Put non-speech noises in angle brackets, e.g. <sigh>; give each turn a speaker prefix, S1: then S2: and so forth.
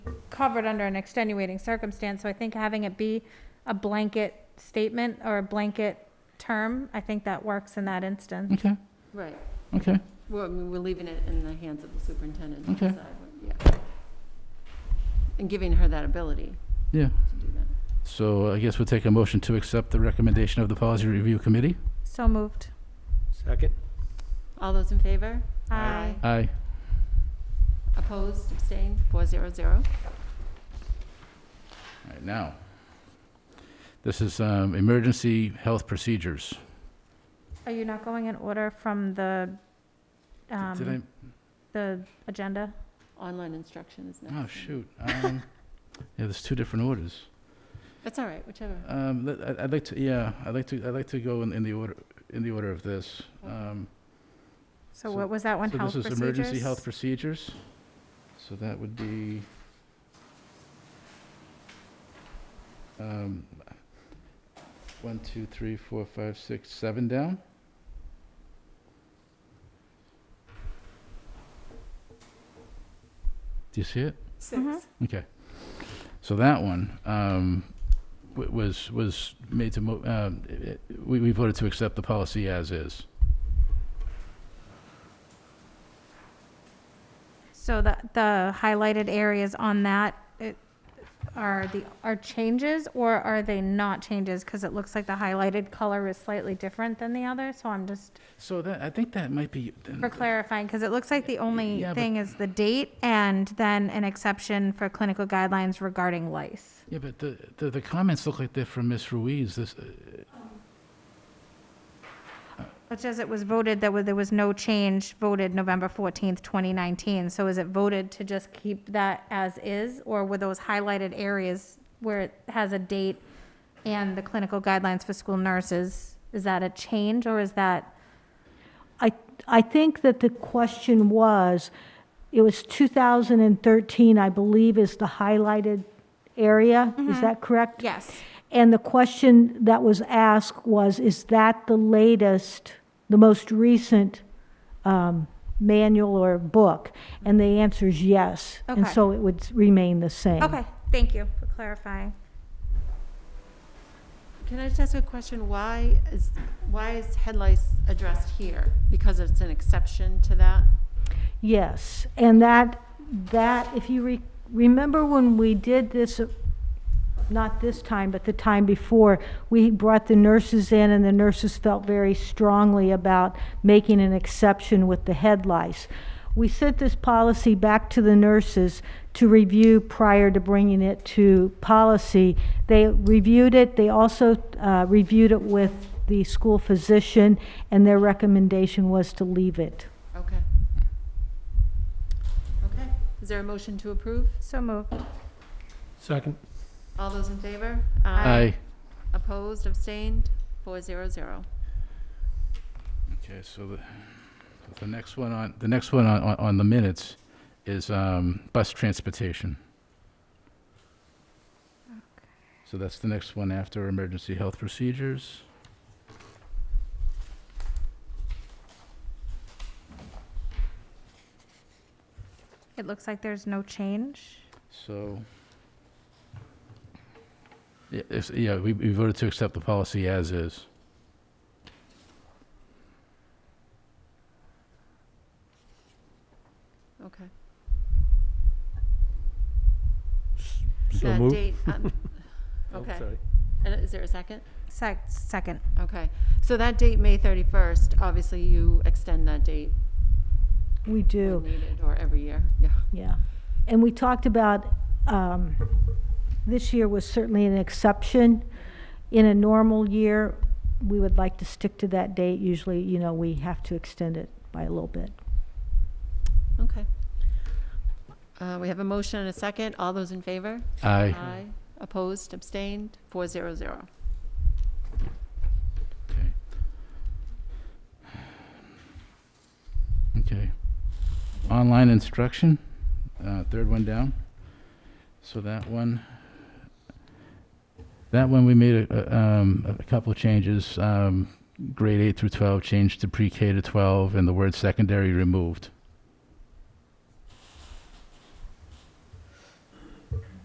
S1: covered under an extenuating circumstance, so I think having it be a blanket statement or a blanket term, I think that works in that instance.
S2: Okay,
S3: Right,
S2: okay.
S3: well, I mean, we're leaving it in the hands of the superintendent to
S2: Okay.
S3: decide, what- yeah. And giving her that ability.
S2: Yeah.
S3: To do that.
S2: So I guess we'll take a motion to accept the recommendation of the Policy Review Committee.
S1: So moved.
S4: Second.
S3: All those in favor?
S1: Aye.
S2: Aye.
S3: Opposed, abstained, four zero zero.
S2: All right, now, this is um, emergency health procedures.
S1: Are you not going in order from the,
S2: Did- Did I? oh,
S1: um, the agenda?
S3: Online instruction is next.
S2: Oh, shoot. Um, <laughs> Yeah, there's two different orders.
S3: That's all right, whichever.
S2: Um, let- I- I'd like to, yeah, I'd like to, I'd like to go in in the order, in the order of this. Um,
S1: So
S2: So-
S1: what was that one, health
S2: So this is emergency
S1: procedures?
S2: health procedures. So that would be, um, one, two, three, four, five, six, seven down. Do you see it?
S1: Mhm.
S3: Six.
S2: Okay. So that one um, w- was, was made to, mo- um, it- it- we we voted to accept the policy as is.
S1: So the, the highlighted areas on that it- are the, are changes or are they not changes? Because it looks like the highlighted color is slightly different than the other, so I'm just,
S2: So that, I think that might be.
S1: for clarifying, because it looks like the only
S2: Yeah, but-
S1: thing is the date and then an exception for clinical guidelines regarding lice.
S2: Yeah, but the, the, the comments look like they're from Ms. Ruiz. This, uh,
S1: Which as it was voted, that wa- there was no change voted November 14th, 2019. So is it voted to just keep that as is? Or were those highlighted areas where it has a date and the clinical guidelines for school nurses? Is that a change or is that,
S5: I, I think that the question was, it was 2013, I believe, is the highlighted area.
S1: Mm-hmm.
S5: Is that correct?
S1: yes,
S5: And the question that was asked was, is that the latest, the most recent um, manual or book? And the answer is yes. And
S1: Okay.
S5: so it would remain the same.
S1: okay, thank you for clarifying.
S3: Can I just ask a question? Why is, why is head lice addressed here? Because it's an exception to that?
S5: Yes, and that, that, if you re- remember when we did this, uh, not this time, but the time before, we brought the nurses in, and the nurses felt very strongly about making an exception with the head lice. We sent this policy back to the nurses to review prior to bringing it to policy. They reviewed it, they also uh, reviewed it with the school physician, and their recommendation was to leave it.
S3: Okay. Okay, is there a motion to approve?
S1: So moved.
S4: Second.
S3: All those in favor?
S2: I,
S3: Opposed, abstained, four zero zero.
S2: okay, so the, so the next one on, the next one on, on- on the minutes is um, bus transportation. So that's the next one after emergency health procedures.
S1: It looks like there's no change.
S2: So, yeah, it's- yeah, we we voted to accept the policy as is.
S3: Okay.
S4: So
S3: That
S4: moved.
S3: date, um,
S4: Oh,
S3: Okay,
S4: sorry.
S3: and is there a second?
S1: Sec, second.
S3: Okay, so that date, May thirty-first, obviously you extend that date
S5: We
S3: when
S5: do.
S3: needed, or every year, yeah.
S5: Yeah, and we talked about, um, this year was certainly an exception. In a normal year, we would like to stick to that date. Usually, you know, we have to extend it by a little bit.
S3: Okay. Uh, we have a motion and a second. All those in favor?
S2: Aye.
S3: Opposed, abstained, four zero zero.
S2: Okay. Okay. Online instruction, uh, third one down. So that one, that one, we made a, a, um, a couple of changes. Um, grade eight through 12 changed to pre-K to 12 and the word secondary removed.